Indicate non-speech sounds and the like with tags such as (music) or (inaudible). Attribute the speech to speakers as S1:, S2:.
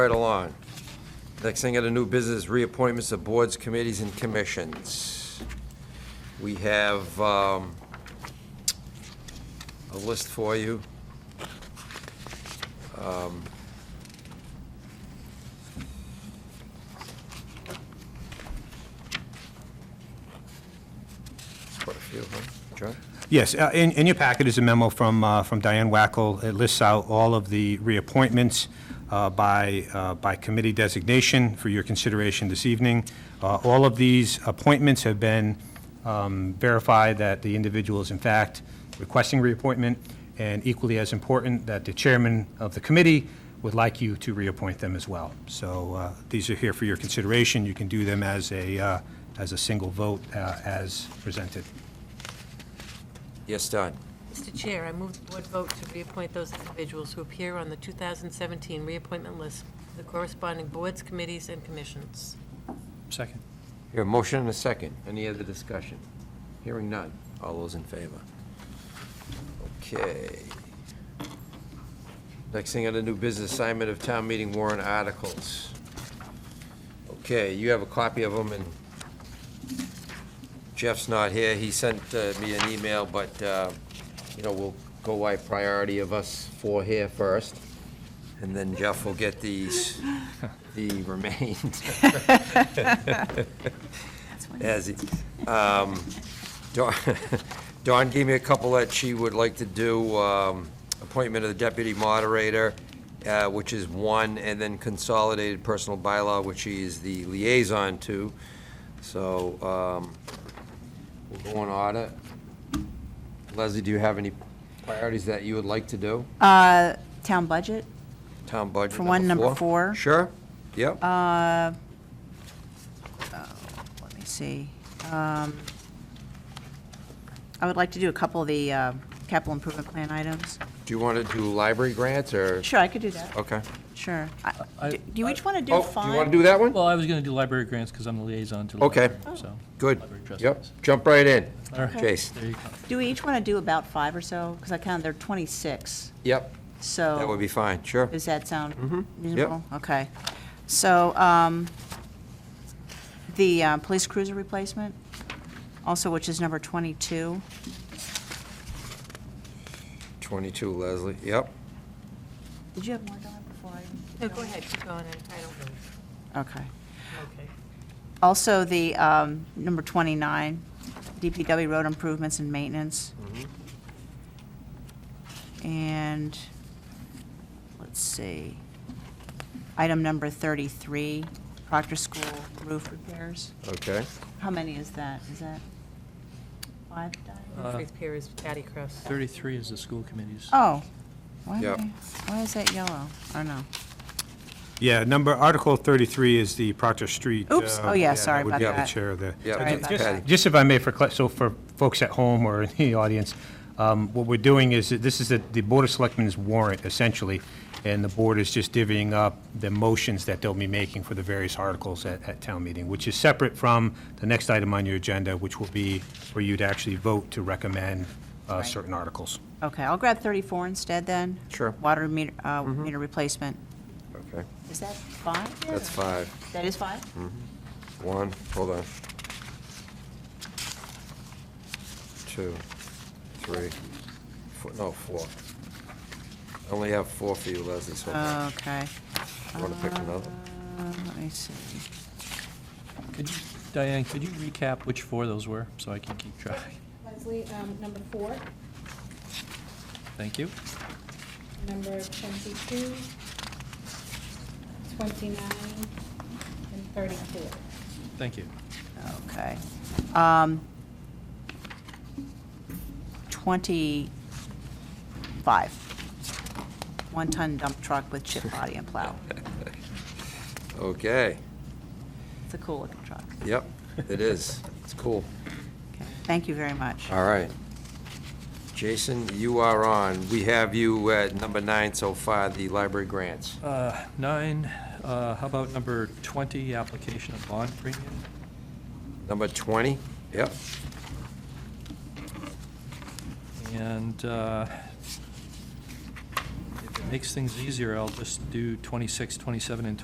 S1: Right along. Next thing on the new business, reappointments of boards, committees, and commissions. We have um, a list for you. Um, Quite a few, huh? John?
S2: Yes, uh, in, in your packet is a memo from, uh, from Diane Wackel. It lists out all of the reappointments uh, by, uh, by committee designation for your consideration this evening. Uh, All of these appointments have been um, verified that the individual is in fact requesting reappointment, and equally as important, that the chairman of the committee would like you to reappoint them as well. So uh, these are here for your consideration. You can do them as a, uh, as a single vote uh, as presented.
S1: Yes, Don?
S3: Mr. Chair, I move the board vote to reappoint those individuals who appear on the 2017 reappointment list to the corresponding boards, committees, and commissions.
S4: Second.
S1: Here, motion and a second. Any other discussion? Hearing none. All those in favor? Okay. Next thing on the new business assignment of town meeting warrant articles. Okay, you have a copy of them, and Jeff's not here. He sent uh, me an email, but, uh, you know, we'll go by priority of us four here first, and then Jeff will get these, the remains. As, he- um, Dawn- (laughs) Dawn gave me a couple that she would like to do, um, appointment of the deputy moderator, uh, which is one, and then consolidated personal bylaw, which she is the liaison to. So, um, we'll go in order. Leslie, do you have any priorities that you would like to do?
S5: Uh, Town budget,
S1: Town budget
S5: For one, number four.
S1: Sure, yep.
S5: let me see. Um, I would like to do a couple of the uh, capital improvement plan items.
S1: Do you want to do library grants, or,
S5: Sure, I could do that,
S1: okay.
S5: sure. I-
S4: I-
S5: Do you each want to do
S1: Oh, do you want
S5: five?
S1: to do that one?
S4: Well, I was going to do library grants because I'm the liaison to the
S1: Okay.
S4: library,
S5: Oh.
S4: so.
S1: Good.
S4: Library trustees.
S1: Yep, jump right in.
S4: All right.
S1: Chase.
S4: There you go.
S5: Do we each want to do about five or so? Because I counted, there are 26,
S1: Yep,
S5: so.
S1: that would be Mm-hmm. fine, sure.
S5: Does that sound reasonable? Okay. So, um, the uh, police cruiser replacement, also, which is number 22.
S1: 22, Leslie, yep.
S5: Did you have more, Don, before I?
S3: No, go ahead, keep going, I I don't,
S5: Okay.
S3: okay.
S5: Also, the um, number 29, DPW road improvements and maintenance. And, let's see, item number 33, Proctor School roof repairs.
S1: Okay,
S5: How many is that? Is that five? Diane?
S1: Uh,
S3: Humphreys Pier is Patty Cross.
S4: 33 is the school committees.
S5: Oh, why, am
S1: Yep.
S5: I- why is that yellow? Oh, no.
S2: Yeah, number, Article 33 is the Proctor Street.
S5: Oops.
S2: uh,
S5: Oh, yeah, sorry
S2: would
S5: about
S2: be
S5: that.
S2: the chair of the.
S1: Yeah,
S5: Sorry about
S2: Just-
S1: that.
S2: Just if I may, for, cla- so for folks at home or (laughs) in the audience, um, what we're doing is, that this is the the Board of Selectmen's warrant, essentially, and the board is just divvying up the motions that they'll be making for the various articles at, at town meeting, which is separate from the next item on your agenda, which will be for you to actually vote to recommend uh,
S5: Right.
S2: certain articles.
S5: Okay, I'll grab 34 instead then.
S1: Sure. Mm-hmm.
S5: Water meter, uh, meter replacement.
S1: okay,
S5: Is that five? yet,
S1: that's
S5: or-
S1: five.
S5: That is five?
S1: One, hold on. Two, three, four, no, four. I only have four for you, Leslie, so I'm
S5: Okay.
S1: Want to pick another?
S5: Uh, Let me see.
S4: Could you- Diane, could you recap which four those were, so I can keep track? (laughs)
S6: Leslie, um, number four,
S4: Thank you.
S6: number twenty-two, twenty-nine, and thirty-four.
S4: Thank you.
S5: Okay. Um, 25. One-ton dump truck with chip body and plow.
S1: (laughs) Okay,
S5: It's a cool-looking truck.
S1: yep, it is. It's cool.
S5: Okay. Thank you very much.
S1: All right. Jason, you are on. We have you at number nine so far, the library grants.
S4: Uh, Nine, uh, how about number 20, application of bond premium?
S1: Number 20, yep.
S4: And uh, if there makes things easier, I'll just do 26, 27, and